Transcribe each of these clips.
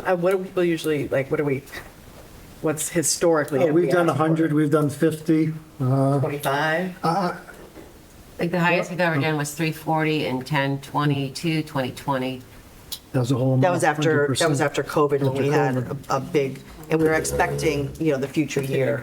Uh, what do people usually, like, what do we, what's historically? Oh, We've done 100, we've done 50. Twenty-five? Uh, Like the highest we've ever done was 340 and 10, 22, 2020. That was a whole. That was amount, after, that was 100%. after COVID, when After we had a COVID. a big, and we were expecting, you know, the future year.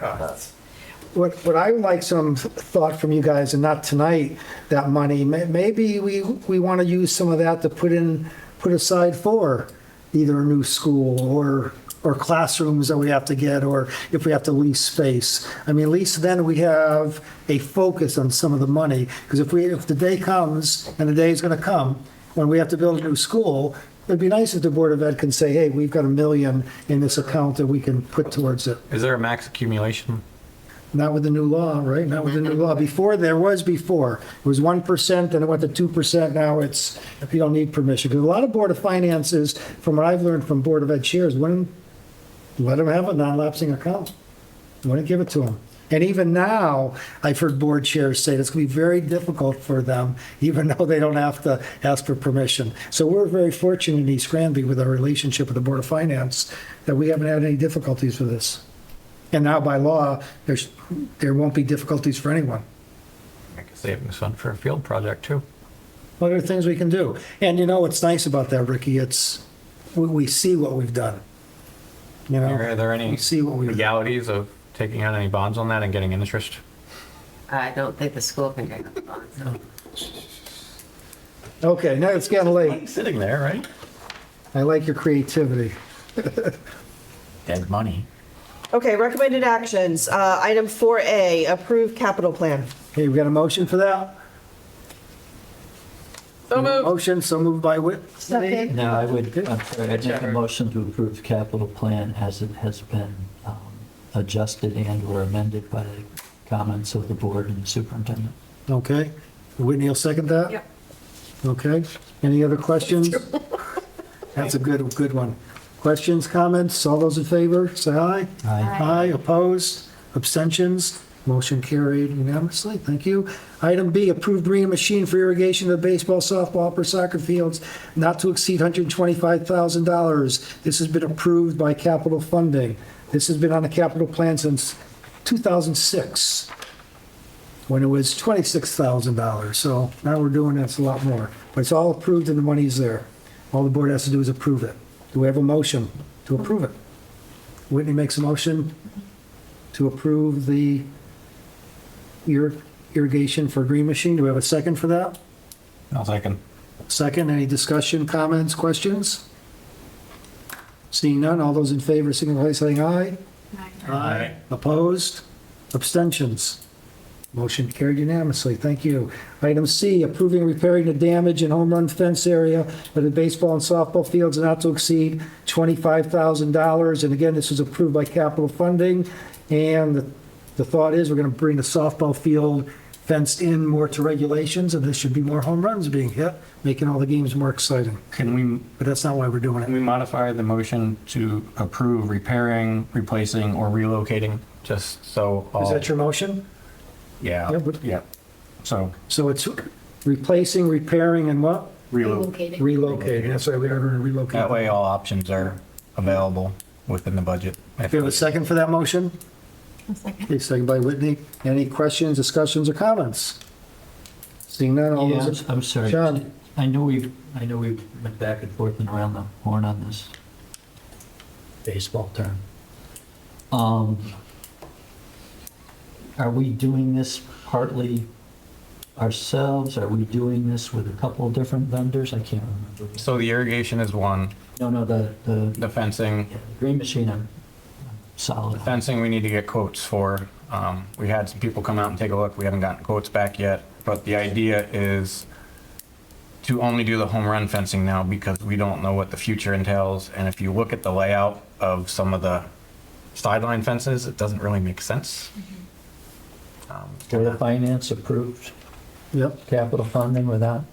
What, what I would like some thought from you guys, and not tonight, that money, may- maybe we, we want to use some of that to put in, put aside for either a new school or, or classrooms that we have to get, or if we have to lease space. I mean, at least then we have a focus on some of the money, because if we, if the day comes, and the day is going to come, when we have to build a new school, it'd be nice if the Board of Ed can say, hey, we've got a million in this account that we can put towards it. Is there a max accumulation? Not with the new law, right? Not with the new law. Before, there was before. It was 1%, then it went to 2%. Now it's, you don't need permission. Because a lot of Board of Finances, from what I've learned from Board of Ed chairs, wouldn't let them have a non-lapsing account. Wouldn't give it to them. And even now, I've heard board chairs say it's going to be very difficult for them, even though they don't have to ask for permission. So we're very fortunate in East Granby with our relationship with the Board of Finance that we haven't had any difficulties with this. And now by law, there's, there won't be difficulties for anyone. Make a savings fund for a field project too. Well, there are things we can do. And you know what's nice about that, Ricky? It's, we, we see what we've done. You know? Are there any We see what we've done. legalities of taking out any bonds on that and getting interest? I don't think the school can take up on it. so. Okay, now it's getting late. Sitting there, right? I like your creativity. Dead money. Okay, recommended actions. Uh, Item 4A, approve capital plan. Okay, we got a motion for that? So moved. Motion, so moved by Whit. No, I would, I'm sorry, I'd make a motion to approve capital plan as it has been um, adjusted and/or amended by the comments of the board and the superintendent. Okay. Whitney will second that? Yep. Okay. Any other questions? That's a good, good one. Questions, comments? All those in favor, say aye. Aye. Aye, opposed, abstentions, motion carried unanimously. Thank you. Item B, approved bringing machine for irrigation of baseball, softball, upper soccer fields not to exceed $125,000. This has been approved by capital funding. This has been on the capital plan since 2006, when it was $26,000. So now we're doing this a lot more. But it's all approved and the money's there. All the board has to do is approve it. Do we have a motion to approve it? Whitney makes a motion to approve the ir- irrigation for Green Machine. Do we have a second for that? I'll second. Second, any discussion, comments, questions? Seeing none, all those in favor, signify by saying aye. Aye. Opposed? Abstentions? Motion carried unanimously. Thank you. Item C, approving repairing the damage in home run fence area of the baseball and softball fields not to exceed $25,000. And again, this was approved by capital funding. And the- the thought is, we're going to bring the softball field fenced in more to regulations, and there should be more home runs being hit, making all the games more exciting. Can we, But that's not why we're doing can it. we modify the motion to approve repairing, replacing, or relocating? Just so. all- Is that your motion? Yeah, Yeah, but- yeah. So So it's replacing, repairing, and what? relocate. Relocating. That's why we are going to relocate. That way all options are available within the budget. If you have a second for that motion? Okay, second by Whitney. Any questions, discussions, or comments? Seeing none, all Yeah, those. I'm- I'm sorry. John. I know we've, I know we've been back and forth and around the horn on this baseball term. Um, Are we doing this partly ourselves? Are we doing this with a couple of different vendors? I can't remember. So the irrigation is one, No, no, the, the the fencing yeah, the green machine, I'm I'm solid. on. Fencing, we need to get quotes for. Um, We had some people come out and take a look. We haven't gotten quotes back yet, but the idea is to only do the home run fencing now because we don't know what the future entails. And if you look at the layout of some of the sideline fences, it doesn't really make sense. Um, Board of Finance approved Yep. capital funding without,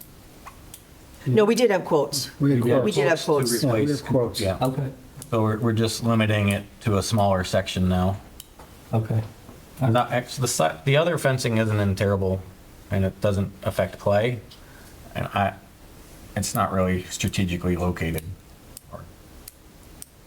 No, we did have quotes. We had We quotes. did have to quotes. Yeah, we replace- have quotes. Yeah, okay, so we're, we're just limiting it to a smaller section now. okay. Not, ex- the, si- the other fencing isn't in terrible, and it doesn't affect play, and I, it's not really strategically located.